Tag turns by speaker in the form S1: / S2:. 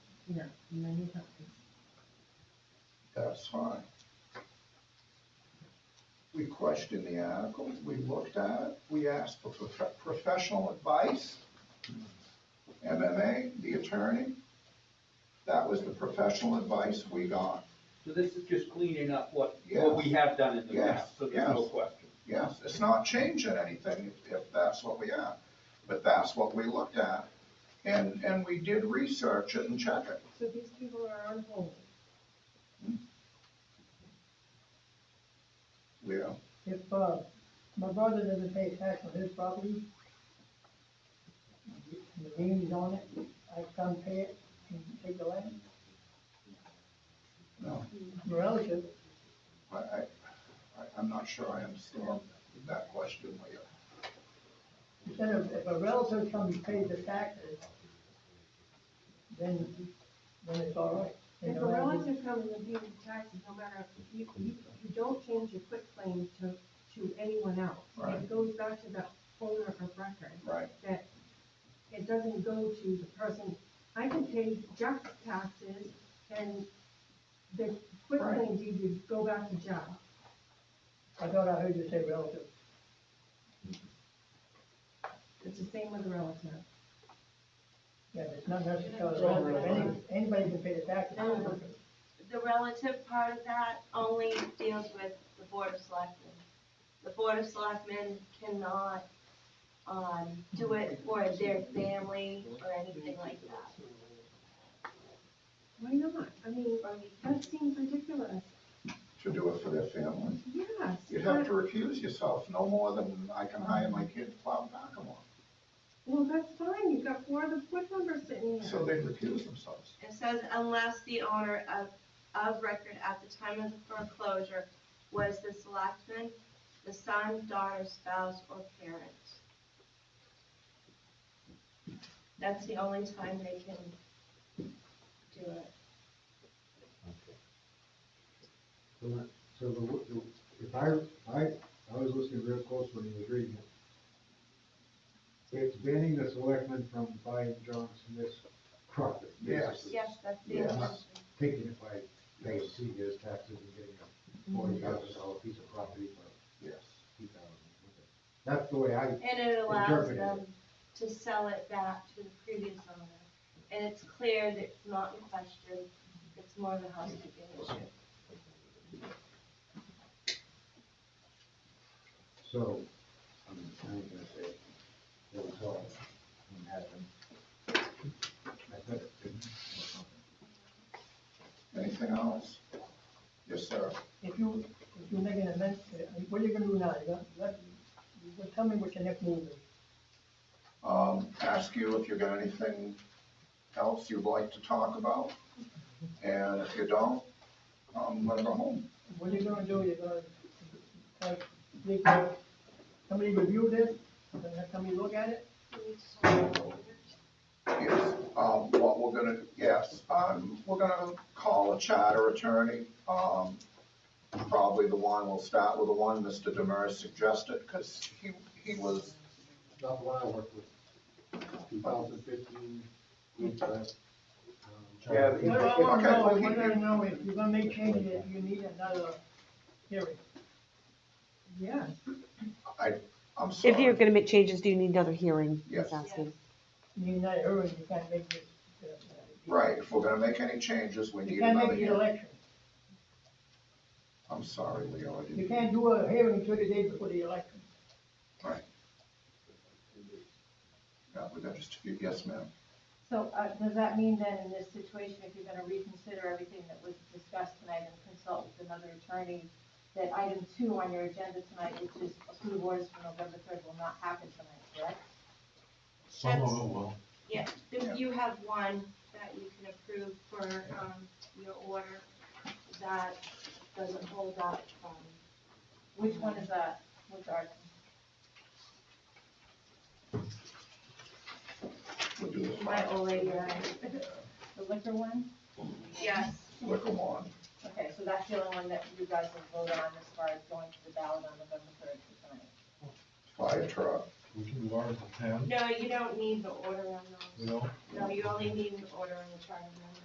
S1: you know, many companies.
S2: That's fine. We questioned the article, we looked at it, we asked for prof- professional advice. MMA, the attorney, that was the professional advice we got.
S3: So this is just cleaning up what,
S2: Yeah.
S3: what we have done in the
S2: Yes,
S3: past, so there's no
S2: yes.
S3: question.
S2: Yes, it's not changing anything if, if that's what we are, but that's what we looked at. And, and we did research it and check it.
S1: So these people are on hold.
S2: Yeah,
S4: If, uh, my brother doesn't pay tax on his property, and the lien is on it, I come pay it and take the land,
S2: no,
S4: my relative,
S2: I, I, I- I'm not sure I understand that question, Leah.
S4: instead of, if a relative comes and pays the taxes, then, then it's all right. They
S1: If a
S4: don't have to-
S1: relative comes and pays the taxes, no matter, if you, you, you don't change your quit claim to, to anyone else.
S2: Right.
S1: It goes back to the owner of record,
S2: Right,
S1: that it doesn't go to the person, I can pay Jeff's taxes and the quit
S2: Right.
S1: claim deed would go back to Jeff.
S4: I thought I heard you say relative.
S1: It's the same with the relative.
S4: Yeah, but it's not necessarily,
S1: It's all
S4: relative. Any-
S1: relative.
S4: anybody can pay the taxes.
S5: No, no, no. The relative part of that only deals with the board of selectmen. The board of selectmen cannot, um, do it for their family or anything like that.
S1: Why not? I mean, that seems ridiculous.
S2: to do it for their family.
S1: Yes.
S2: You'd have
S1: but-
S2: to recuse yourself, no more than I can hire my kid to plow Nakamon.
S1: Well, that's fine, you've got four of the foot numbers sitting there.
S2: So they recuse themselves.
S5: It says unless the owner of, of record at the time of the foreclosure was the selectman, the son, daughter, spouse, or parent. That's the only time they can do it.
S6: Okay. So, that- so the, wo- the- if I, I, I was listening real close when you was reading it. It's banning the selectmen from buying John Smith's property.
S2: Yes.
S6: basically.
S5: Yes, that's the
S2: Yes.
S5: intention.
S6: Taking it by, they see his taxes and getting a forty thousand dollar piece of property for
S2: Yes.
S6: two thousand. That's the way I,
S5: And it allows
S6: Interpreted.
S5: them to sell it back to the previous owner. And it's clear that it's not in question, it's more of a housekeeping issue.
S6: so, I'm, I'm gonna say, that was all, that happened. I said it didn't.
S2: Anything else? Yes, sir.
S4: If you, if you make an amendment, what are you gonna do now? You gonna, let, tell me what your next move is.
S2: Um, ask you if you got anything else you'd like to talk about. And if you don't, I'm gonna go home.
S4: What are you gonna do, you're gonna, have, they go- somebody review this, and then have somebody look at it?
S2: Yes, um, what we're gonna, yes, um, we're gonna call a charter attorney, um, probably the one, we'll start with the one Mr. Demers suggested, cause he, he was,
S6: Not the one I worked with, two thousand fifteen, um, with that.
S3: Yeah,
S4: What I wanna
S2: Okay,
S4: know,
S2: well,
S4: I
S2: he-
S4: wanna know if you're gonna make changes, you need another hearing.
S1: Yes.
S2: I'm sorry.
S7: If you're gonna make changes, do you need another hearing? He's
S2: Yes.
S7: asking.
S4: You need another hearing, you can't make this. uh,
S2: Right, if we're gonna make any changes, we
S4: You
S2: need
S4: can't
S2: another
S4: make the
S2: hearing.
S4: election,
S2: I'm sorry, Leo, I
S4: you
S2: didn't,
S4: can't do a hearing thirty days before the election.
S2: yeah, we got just a few, yes, ma'am.
S8: So, uh, does that mean then in this situation, if you're gonna reconsider everything that was discussed tonight and consult with another attorney, that item two on your agenda tonight, which is approve orders for November third, will not happen tonight, correct?
S5: Some of it will. Yeah, if you have one that you can approve for, um, your order, that doesn't hold up, um,
S8: Which one is that, which article?
S2: We'll do this
S5: my old lady, and I.
S8: The liquor one?
S5: Yes.
S2: Look 'em on.
S8: Okay, so that's the only one that you guys will vote on as far as going to the ballot on November third for tonight.
S2: fire truck,
S6: We can do Article ten,
S5: No, you don't need the order on those.
S6: know?
S5: No, you only need an order on the charter amendment.